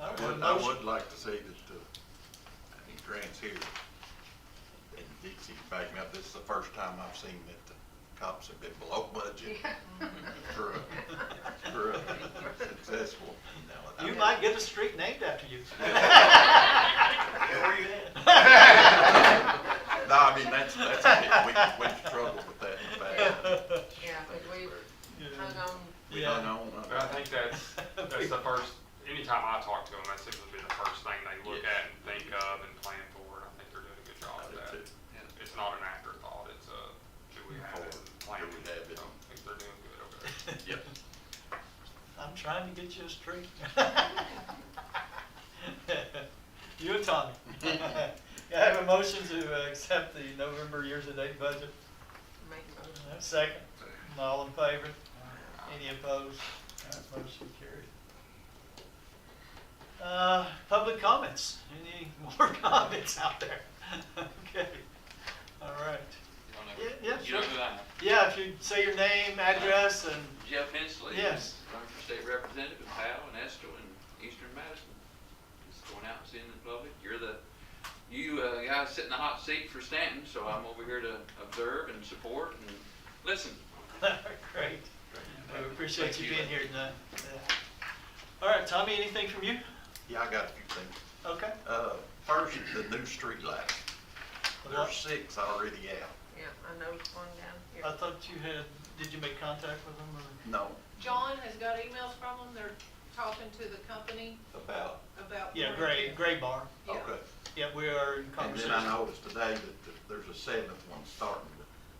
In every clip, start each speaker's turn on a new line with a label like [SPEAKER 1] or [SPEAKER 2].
[SPEAKER 1] And I
[SPEAKER 2] motion.
[SPEAKER 1] would like to say that, uh, I think Grant's here, and Dixie can back me up, this is the first time I've seen that the cops have been below budget for, a- for a successful, you know.
[SPEAKER 2] You might get a street named after you.
[SPEAKER 3] Where you
[SPEAKER 1] No, I mean, that's, that's, a bit- we, we struggled with that in the past.
[SPEAKER 4] Yeah, but we hung on,
[SPEAKER 1] We
[SPEAKER 2] Yeah.
[SPEAKER 1] hung on.
[SPEAKER 3] But I think that's, that's the first, anytime I talk to them, that seems to be the first thing they look at and think of and plan for, and I think they're doing a good job
[SPEAKER 1] I
[SPEAKER 3] of
[SPEAKER 1] did
[SPEAKER 3] that.
[SPEAKER 1] too.
[SPEAKER 3] It's not an afterthought, it's a, do we have it, and plan
[SPEAKER 1] Do we have
[SPEAKER 3] it,
[SPEAKER 1] it?
[SPEAKER 3] So I think they're doing good over there.
[SPEAKER 1] Yep.
[SPEAKER 2] I'm trying to get you a street. You and Tommy. Can I have a motion to uh, accept the November year-to-date budget?
[SPEAKER 4] make a motion.
[SPEAKER 2] Second. All in favor? Any opposed? All right, Motion carried. Uh, Public comments? Any more comments out there? Okay, all right.
[SPEAKER 5] You don't
[SPEAKER 2] Yeah, yeah,
[SPEAKER 5] know- You know
[SPEAKER 2] sure.
[SPEAKER 5] who I am.
[SPEAKER 2] Yeah, if you say your name, address, and
[SPEAKER 5] Jeff Hensley.
[SPEAKER 2] Yes.
[SPEAKER 5] Running for state representative in Powell and Estill and Eastern Madison. Just going out and seeing the public. You're the, you uh, guys sit in the hot seat for Stanton, so I'm over here to observe and support and listen.
[SPEAKER 2] Great. We appreciate you being here tonight. Yeah. All right, Tommy, anything from you?
[SPEAKER 1] Yeah, I got a few things.
[SPEAKER 2] Okay.
[SPEAKER 1] Uh, first, the new street light.
[SPEAKER 2] Well,
[SPEAKER 1] There's six already out.
[SPEAKER 4] Yeah, I know it's one down here.
[SPEAKER 2] I thought you had, did you make contact with them or?
[SPEAKER 1] No,
[SPEAKER 6] John has got emails from them, they're talking to the company
[SPEAKER 1] about,
[SPEAKER 6] about.
[SPEAKER 2] Yeah, Gray, Gray Bar.
[SPEAKER 6] Yeah.
[SPEAKER 1] okay.
[SPEAKER 2] Yeah, we are in
[SPEAKER 1] And
[SPEAKER 2] conversation.
[SPEAKER 1] then I noticed today that th- there's a seventh one starting,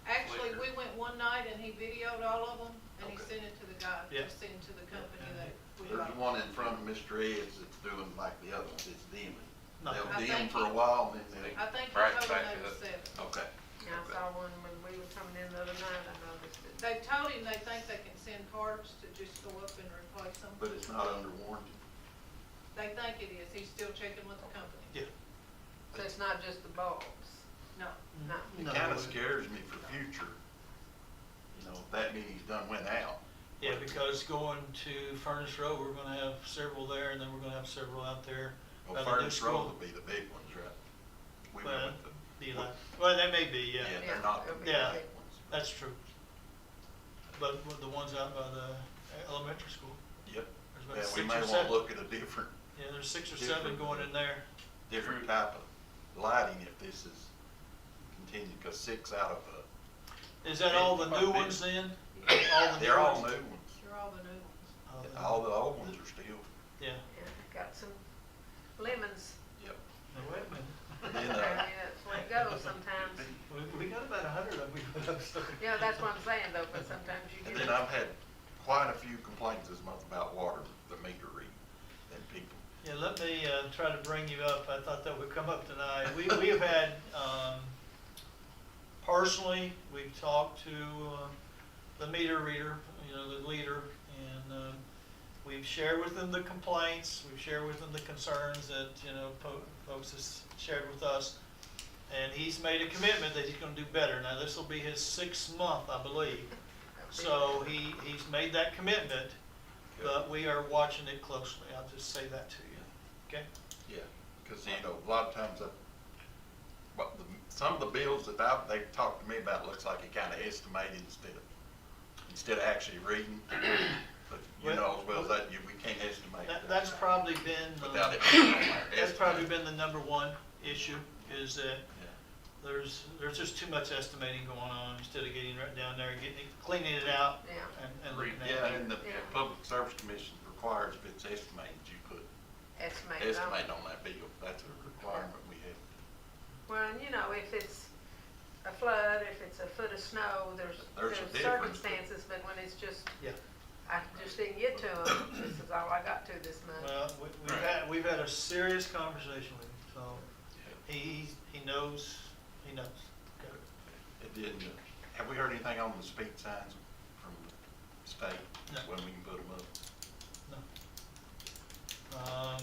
[SPEAKER 6] Actually, we went one night and he videoed all of them, and he
[SPEAKER 1] Okay.
[SPEAKER 6] sent it to the guy,
[SPEAKER 2] Yeah.
[SPEAKER 6] just sent it to the company
[SPEAKER 2] Yeah.
[SPEAKER 6] that
[SPEAKER 1] but
[SPEAKER 6] we
[SPEAKER 1] there's
[SPEAKER 6] got.
[SPEAKER 1] one in front of Mr. Ed's that's doing like the other ones, it's dimming.
[SPEAKER 2] No.
[SPEAKER 1] They'll
[SPEAKER 6] I
[SPEAKER 1] dim
[SPEAKER 6] think
[SPEAKER 1] for a
[SPEAKER 6] he-
[SPEAKER 1] while and then
[SPEAKER 6] I think he
[SPEAKER 5] Right,
[SPEAKER 6] told him
[SPEAKER 5] back
[SPEAKER 6] they
[SPEAKER 5] it
[SPEAKER 6] were
[SPEAKER 5] up.
[SPEAKER 6] seven.
[SPEAKER 1] they'll, okay.
[SPEAKER 4] Yeah, I saw one when we were coming in the other night, I noticed it.
[SPEAKER 6] They told him they think they can send parts to just go up and replace them.
[SPEAKER 1] But it's not under warranty.
[SPEAKER 6] They think it is, he's still checking with the company.
[SPEAKER 2] Yeah.
[SPEAKER 4] So it's not just the bulbs,
[SPEAKER 6] No,
[SPEAKER 4] no.
[SPEAKER 1] It
[SPEAKER 2] No.
[SPEAKER 1] kinda scares me for future, you know, if that meeting's done went out.
[SPEAKER 2] Yeah, because going to Furnace Road, we're gonna have several there and then we're gonna have several out there. by
[SPEAKER 1] Well,
[SPEAKER 2] the new
[SPEAKER 1] Oh, Furnace Road
[SPEAKER 2] school.
[SPEAKER 1] will be the big ones, right? We
[SPEAKER 2] Well,
[SPEAKER 1] went with the-
[SPEAKER 2] be like- Well, that may be,
[SPEAKER 1] Yeah,
[SPEAKER 2] yeah,
[SPEAKER 1] they're not the
[SPEAKER 4] Yeah,
[SPEAKER 1] big
[SPEAKER 2] yeah.
[SPEAKER 1] ones.
[SPEAKER 2] that's true. But with the ones out by the elementary school,
[SPEAKER 1] Yep.
[SPEAKER 2] there's
[SPEAKER 1] Yeah,
[SPEAKER 2] about
[SPEAKER 1] we
[SPEAKER 2] six
[SPEAKER 1] may
[SPEAKER 2] or
[SPEAKER 1] wanna
[SPEAKER 2] seven.
[SPEAKER 1] look at a different,
[SPEAKER 2] Yeah, there's six or seven
[SPEAKER 1] different-
[SPEAKER 2] going in there.
[SPEAKER 1] different type of lighting if this is continued, cause six out of, uh,
[SPEAKER 2] Is that all the new
[SPEAKER 1] Yeah.
[SPEAKER 2] ones then? All the
[SPEAKER 1] They're all new
[SPEAKER 2] ones?
[SPEAKER 1] ones.
[SPEAKER 6] they're all the new ones.
[SPEAKER 2] All the-
[SPEAKER 1] All the old ones are still,
[SPEAKER 2] Oh, Yeah.
[SPEAKER 4] Yeah, got some lemons,
[SPEAKER 1] yep.
[SPEAKER 2] Now, wait a
[SPEAKER 1] Then,
[SPEAKER 4] I
[SPEAKER 2] minute.
[SPEAKER 4] mean,
[SPEAKER 1] uh,
[SPEAKER 4] that's where it goes sometimes.
[SPEAKER 2] We, we got about a hundred of them we put up. so-
[SPEAKER 4] Yeah, that's what I'm saying though, but sometimes you
[SPEAKER 1] And
[SPEAKER 4] get.
[SPEAKER 1] then I've had quite a few complaints this month about water, the meter reading, and people,
[SPEAKER 2] Yeah, let me, uh, try to bring you up, I thought that would come up tonight. We, we have had, um, personally, we've talked to, uh, the meter reader, you know, the leader, and, uh, we've shared with them the complaints, we've shared with them the concerns that, you know, po- folks has shared with us. And he's made a commitment that he's gonna do better. Now, this will be his sixth month, I believe. So he, he's made that commitment, but we are watching it closely. I'll just say that to you, okay?
[SPEAKER 1] yeah. Cause you know, a lot of times I, but the, some of the bills that I've, they've talked to me about, looks like it kinda estimated instead of, instead of actually reading. But you know as well as that, you, we can't estimate that.
[SPEAKER 2] That, that's probably been, the-
[SPEAKER 1] Without it. being on there.
[SPEAKER 2] that's probably been the number one issue, is that
[SPEAKER 1] Yeah.
[SPEAKER 2] there's, there's just too much estimating going on instead of getting right down there and getting, it- cleaning it out
[SPEAKER 4] Yeah.
[SPEAKER 2] and, and
[SPEAKER 1] Re-
[SPEAKER 2] looking
[SPEAKER 1] Yeah,
[SPEAKER 2] at it.
[SPEAKER 1] and the
[SPEAKER 4] Yeah.
[SPEAKER 1] Public Service Commission requires if it's estimated, you put
[SPEAKER 4] Estimate on.
[SPEAKER 1] estimate on that bill. That's a requirement we have.
[SPEAKER 4] Well, and you know, if it's a flood, if it's a foot of snow, there's,
[SPEAKER 1] There's
[SPEAKER 4] there's
[SPEAKER 1] a difference.
[SPEAKER 4] circumstances, but when it's just,
[SPEAKER 2] Yeah,
[SPEAKER 4] I just didn't get to them, this is all I got to this month.
[SPEAKER 2] well, we, we've had, we've had a serious conversation with him, so he, he knows, he knows. Okay.
[SPEAKER 1] It didn't, uh, have we heard anything on the speed signs from the state?
[SPEAKER 2] No.
[SPEAKER 1] When we can put them up?
[SPEAKER 2] No. Um,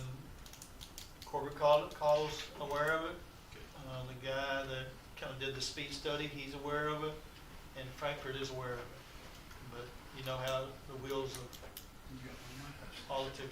[SPEAKER 2] Corbett called, calls aware of it. Uh, the guy that kinda did the speed study, he's aware of it, and Frankfurt is aware of it. But you know how the wheels of politics